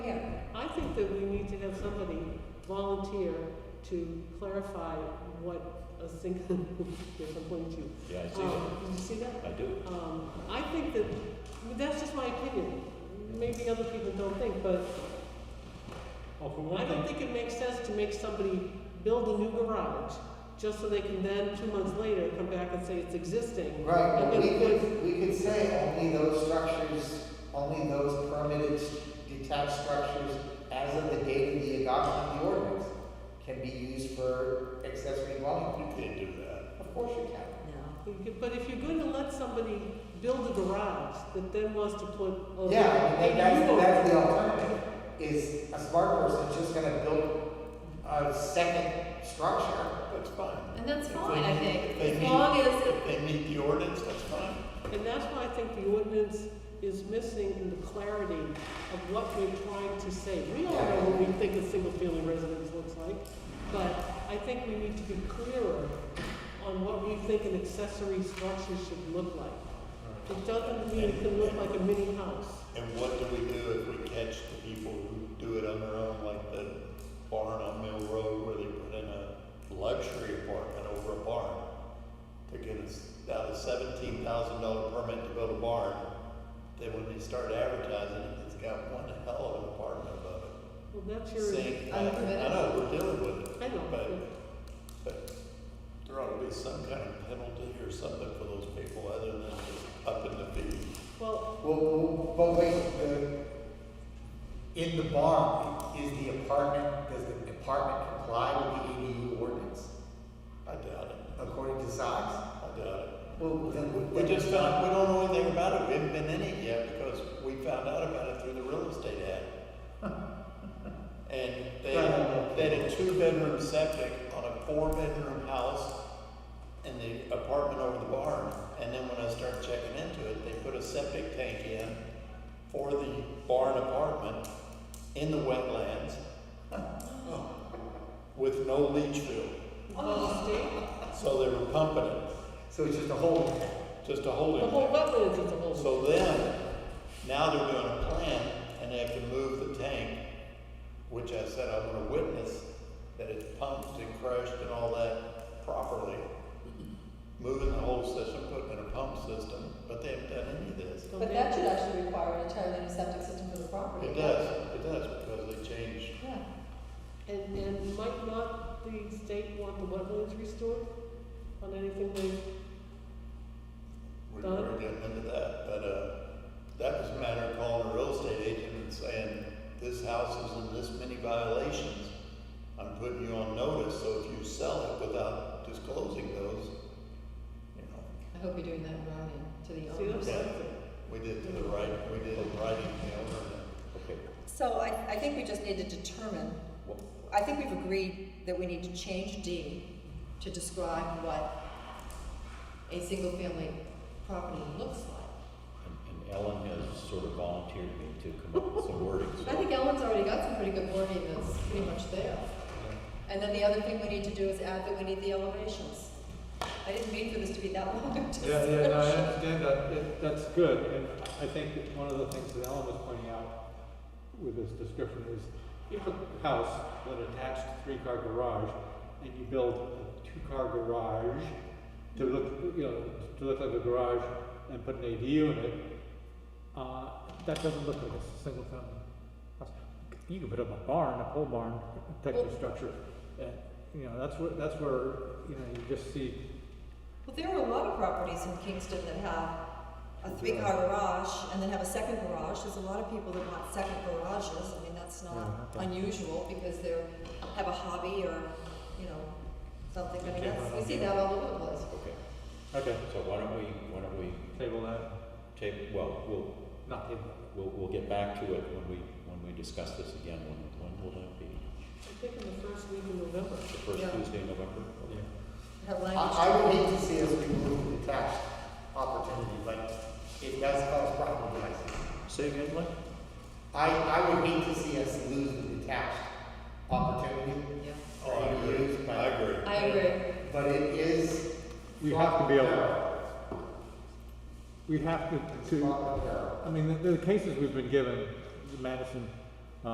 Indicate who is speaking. Speaker 1: think that we need to have somebody volunteer to clarify what a sink, if I'm pointing to you.
Speaker 2: Yeah, I see
Speaker 1: Um, Did you see that?
Speaker 2: that. I do.
Speaker 1: Um, I think that, that's just my opinion. Maybe other people don't think, but I
Speaker 3: Well, for one
Speaker 1: don't
Speaker 3: thing,
Speaker 1: think it makes sense to make somebody build a new garage just so they can then, two months later, come back and say it's existing.
Speaker 4: Right,
Speaker 1: And
Speaker 4: but
Speaker 1: then
Speaker 4: we
Speaker 1: put-
Speaker 4: could, we could say only those structures, only those permitted detached structures as of the date of the adoption of the ordinance can be used for accessory dwelling.
Speaker 2: You can't do that.
Speaker 4: Of course you can.
Speaker 1: You could- But if you're gonna let somebody build a garage that then wants to put. a-
Speaker 4: Yeah, I
Speaker 1: a
Speaker 4: mean, that- that's,
Speaker 1: new-
Speaker 4: that's the alternative, is a smart person's just gonna build a second structure.
Speaker 2: That's fine.
Speaker 5: And that's
Speaker 2: If
Speaker 5: fine, I
Speaker 2: they-
Speaker 5: think,
Speaker 2: if they
Speaker 5: as
Speaker 2: meet-
Speaker 5: long as-
Speaker 2: If they meet the ordinance, that's fine.
Speaker 1: And that's why I think the ordinance is missing in the clarity of what we're trying to say. We all know what we think a single-family residence looks like, but I think we need to be clearer on what we think an accessory structure should look like. It doesn't mean it can look like a mini house.
Speaker 2: And what do we do if we catch the people who do it on their own, like the barn on Mill Road where they put in a luxury apartment over a barn? They get us out a seventeen thousand dollar permit to build a barn. Then when they start advertising it, it's got one hell of an apartment above it.
Speaker 1: Well, that's your.
Speaker 2: Same, I,
Speaker 5: Unpermitted.
Speaker 2: I know, we're dealing with it,
Speaker 1: I know,
Speaker 2: but,
Speaker 1: but-
Speaker 2: but there ought to be some kind of penalty or something for those people other than just upping the fee.
Speaker 1: well,
Speaker 4: Well, Well, but wait, the, in the barn, is the apartment, does the apartment comply with the ADU ordinance
Speaker 2: I doubt it,
Speaker 4: according to size?
Speaker 2: I doubt it.
Speaker 4: Well, then.
Speaker 2: We just found, we don't know anything about it, we haven't been in it yet, because we found out about it through the real estate ad. And they, they had a two-bedroom septic on a four-bedroom house in the apartment over the barn. And then when I started checking into it, they put a septic tank in for the barn apartment in the wetlands with no leach field,
Speaker 1: the state,
Speaker 2: so they were pumping it,
Speaker 4: So it's just a whole
Speaker 2: just to hold it
Speaker 1: the whole
Speaker 2: there.
Speaker 1: wetlands is a whole.
Speaker 2: So then, now they're doing a plan and they have to move the tank, which I said I'm gonna witness that it's pumped and crushed and all that properly. Moving the whole system, putting in a pump system, but they haven't done any of this.
Speaker 1: Don't
Speaker 5: But
Speaker 1: they-
Speaker 5: that should actually require an entirely new septic system for the property.
Speaker 2: It does, it does, because they changed.
Speaker 5: Yeah.
Speaker 1: And, and might not the state want the wetlands restored on anything they,
Speaker 2: We're,
Speaker 1: Done.
Speaker 2: we're getting into that, but, uh, that was a matter of calling a real estate agent and saying, this house is in this many violations. I'm putting you on notice, so if you sell it without disclosing those, you know,
Speaker 5: I hope you're doing that in writing to the
Speaker 1: see, that's
Speaker 5: owners.
Speaker 1: something.
Speaker 2: we did to the right, we did it right in the owner.
Speaker 3: okay,
Speaker 6: So I, I think we just need to determine, I think we've agreed that we need to change D.
Speaker 5: To describe what a single-family property looks like.
Speaker 3: and and Ellen has sort of volunteered me to come up with some wording,
Speaker 5: I
Speaker 3: so.
Speaker 5: think Ellen's already got some pretty good wording that's pretty much there. And then the other thing we need to do is add that we need the elevations. I didn't mean for this to be that long a
Speaker 3: Yeah, yeah, no, I
Speaker 5: discussion.
Speaker 3: understand that, It- that's good, and I think that one of the things that Ellen was pointing out with this description is, you have a house with an attached three-car garage, and you build a two-car garage to look, you know, to look like a garage and put an ADU in it, uh, that doesn't look like a single-family house. You can put up a barn, a pole barn type of
Speaker 5: Well-
Speaker 3: structure, and, you know, that's where, that's where, you know, you just see
Speaker 6: Well, there are a lot of properties in Kingston that have a three-car garage and then have a second garage. There's a lot of people that want second garages. I mean, that's not
Speaker 3: Yeah, okay.
Speaker 6: unusual because they're, have a hobby or, you know, something. I mean,
Speaker 3: Okay,
Speaker 6: that's,
Speaker 5: We see that all over the place.
Speaker 3: Okay. Okay. So why don't we, why don't we? Table that? Table, well, we'll. Not table. We'll, we'll get back to it when we, when we discuss this again, when, when will that be?
Speaker 1: I think in the first week in November.
Speaker 3: The first
Speaker 5: Yeah.
Speaker 3: Tuesday in November?
Speaker 5: Have
Speaker 4: I,
Speaker 5: language.
Speaker 4: I would hate to see us remove the tax opportunity, but it does cause problem, guys.
Speaker 3: Say again, Mike?
Speaker 4: I, I would hate to see us lose the detached opportunity.
Speaker 5: Yeah.
Speaker 7: Oh,
Speaker 4: for ADUs, but-
Speaker 2: Oh, I agree.
Speaker 5: I agree.
Speaker 4: But it is.
Speaker 7: You have to be able-
Speaker 4: to.
Speaker 7: We have to, to, I mean, the, the cases we've been given, the Madison